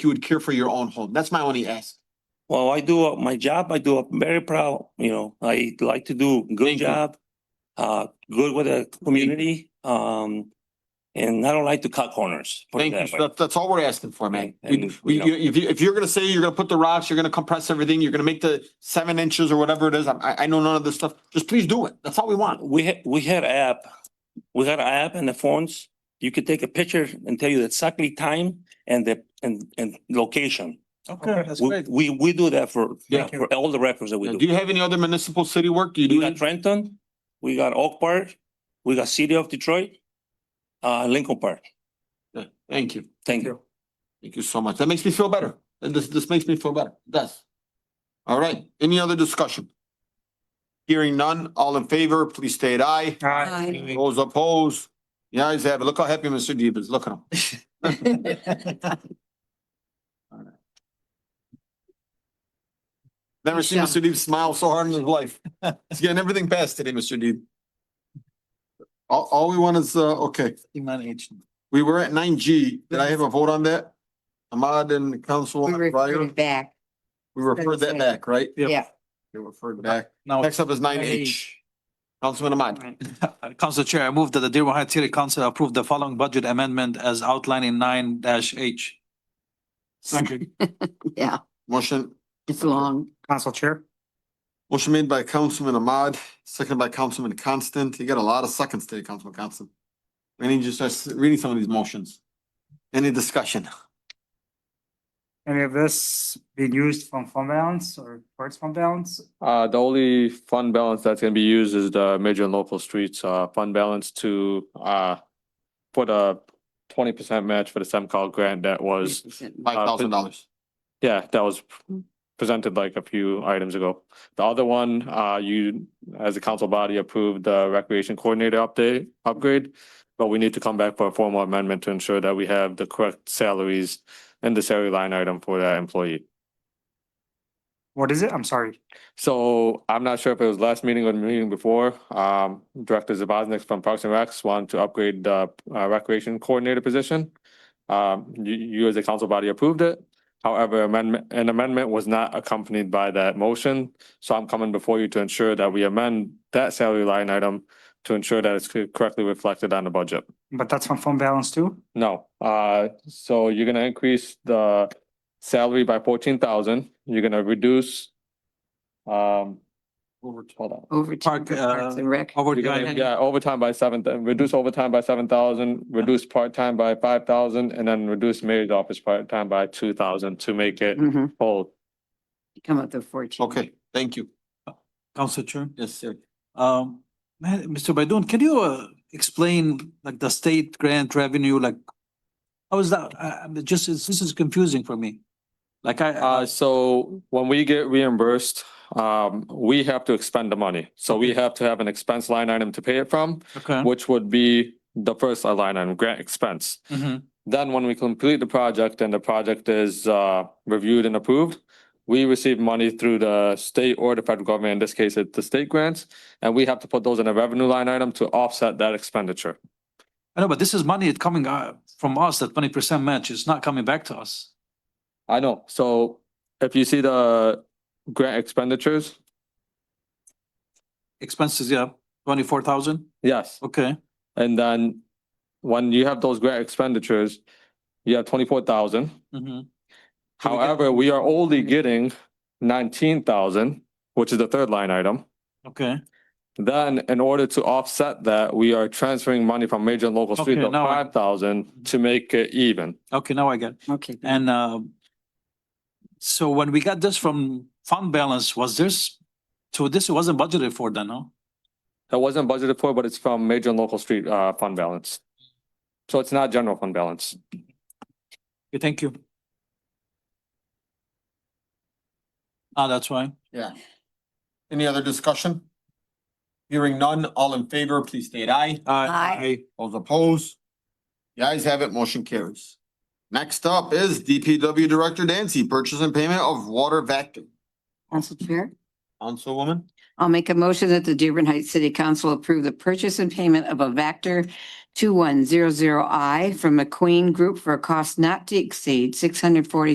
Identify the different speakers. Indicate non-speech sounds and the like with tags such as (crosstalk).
Speaker 1: you would care for your own home. That's my only ask.
Speaker 2: Well, I do uh, my job. I do. I'm very proud. You know, I like to do good
Speaker 1: Thank you.
Speaker 2: job, uh, good with the community. Um, and I don't like to cut corners. put it
Speaker 1: Thank you.
Speaker 2: that
Speaker 1: So
Speaker 2: way.
Speaker 1: That's, that's all we're asking for, man.
Speaker 2: And- and,
Speaker 1: We- we-
Speaker 2: you know-
Speaker 1: you- If, you- if you're gonna say you're gonna put the rocks, you're gonna compress everything, you're gonna make the seven inches or whatever it is, I- I, I know none of this stuff. Just please do it. That's all we want.
Speaker 2: We had, we had a app, we had an app in the phones. You could take a picture and tell you exactly time and the, and, and location.
Speaker 3: Okay, that's
Speaker 2: We-
Speaker 3: great.
Speaker 2: We, we do that for,
Speaker 1: Yeah.
Speaker 2: for all the records that we
Speaker 1: Do
Speaker 2: do.
Speaker 1: you have any other municipal city work? Do you
Speaker 2: We
Speaker 1: do
Speaker 2: got
Speaker 1: it?
Speaker 2: Trenton, we got Oak Park, we got City of Detroit, uh, Lincoln Park.
Speaker 1: Thank you.
Speaker 2: Thank you.
Speaker 1: Thank you so much. That makes me feel better. And this, this makes me feel better. It does. All right. Any other discussion? Hearing none, all in favor, please state aye.
Speaker 4: Aye.
Speaker 1: Those opposed, the ayes have it. Look how happy Mr. Deeb is. Look at him.
Speaker 4: (laughs)
Speaker 1: Never seen Mr. Deeb smile so hard in his life.
Speaker 4: (laughs)
Speaker 1: He's getting everything passed today, Mr. Deeb. All, all we want is, uh, okay, we were at nine G. Did I have a vote on that? Ahmad and
Speaker 4: We
Speaker 1: Councilwoman
Speaker 4: referred
Speaker 1: Breyer,
Speaker 4: it back,
Speaker 1: we referred that back, right?
Speaker 4: yeah.
Speaker 1: We referred back.
Speaker 3: Now,
Speaker 1: Next up is nine H. Councilman Ahmad.
Speaker 3: Council Chair, I move that the Dearborn Heights City Council approve the following budget amendment as outlined in nine dash H.
Speaker 4: Yeah,
Speaker 1: Motion,
Speaker 4: it's long.
Speaker 5: Council Chair,
Speaker 1: motion made by Councilman Ahmad, seconded by Councilman Constant. You got a lot of seconds today, Councilman Constant. We need you to start reading some of these motions. Any discussion?
Speaker 5: any of this being used from fund balance or towards fund balance?
Speaker 6: Uh, the only fund balance that's gonna be used is the major and local streets, uh, fund balance to, uh, put a twenty percent match for the SEMCOG grant that was,
Speaker 1: Five thousand dollars.
Speaker 6: yeah, that was presented like a few items ago. The other one, uh, you, as a council body approved the recreation coordinator update, upgrade. But we need to come back for a formal amendment to ensure that we have the correct salaries and the salary line item for that employee.
Speaker 5: What is it? I'm sorry.
Speaker 6: So I'm not sure if it was last meeting or the meeting before, um, Director Zaboznik from Parks and Recs wanted to upgrade the uh, recreation coordinator position. Um, you, you as a council body approved it. However, amendment, an amendment was not accompanied by that motion. So I'm coming before you to ensure that we amend that salary line item to ensure that it's correctly reflected on the budget.
Speaker 5: But that's from fund balance too?
Speaker 6: No, uh, so you're gonna increase the salary by fourteen thousand, you're gonna reduce. Um. Over. Hold on.
Speaker 4: Overtime
Speaker 3: Park,
Speaker 4: for Parks
Speaker 3: uh,
Speaker 4: and Rec.
Speaker 6: You're gonna,
Speaker 3: Overtime,
Speaker 6: yeah, overtime by seven, thou- reduce overtime by seven thousand, reduce part-time by five thousand, and then reduce mayor's office part-time by two thousand to make it
Speaker 4: Mhm.
Speaker 6: whole.
Speaker 4: Come up to fourteen.
Speaker 1: Okay, thank you.
Speaker 3: Council Chair.
Speaker 1: Yes, sir.
Speaker 3: Um, man, Mr. Baydun, can you uh, explain like the state grant revenue, like? How is that? I, I'm just, it's- this is confusing for me. Like I,
Speaker 6: Uh, so when we get reimbursed, um, we have to expend the money. So we have to have an expense line item to pay it from,
Speaker 3: okay.
Speaker 6: which would be the first line item, grant expense.
Speaker 3: Mhm.
Speaker 6: Then when we complete the project and the project is uh reviewed and approved, we receive money through the state or the federal government, in this case, it's the state grants. And we have to put those in a revenue line item to offset that expenditure.
Speaker 3: I know, but this is money coming uh, from us, that twenty percent match is not coming back to us.
Speaker 6: I know, so if you see the grant expenditures,
Speaker 3: Expenses, yeah, twenty-four thousand,
Speaker 6: yes.
Speaker 3: okay.
Speaker 6: And then when you have those grant expenditures, you have twenty-four thousand.
Speaker 3: Mhm. So we get-
Speaker 6: However, we are only getting nineteen thousand, which is the third line item.
Speaker 3: Okay,
Speaker 6: Then in order to offset that, we are transferring money from major and local street
Speaker 3: Okay,
Speaker 6: to
Speaker 3: now I-
Speaker 6: five thousand to make it even.
Speaker 3: okay, now I get, it.
Speaker 4: Okay.
Speaker 3: and um. So when we got this from fund balance, was this, so this wasn't budgeted for then, no?
Speaker 6: That wasn't budgeted for, but it's from major and local street uh fund balance. So it's not general fund balance.
Speaker 3: Okay, thank you. Ah, that's why.
Speaker 1: Yeah. Any other discussion? Hearing none, all in favor, please state aye.
Speaker 4: Aye.
Speaker 1: Those opposed? The ayes have it, motion carries. Next up is DPW Director Dancy, purchase and payment of water vacuum.
Speaker 4: Council Chair,
Speaker 1: Councilwoman?
Speaker 4: I'll make a motion that the Dearborn Heights City Council approve the purchase and payment of a Vector two one zero zero I from McQueen Group for a cost not to exceed six hundred forty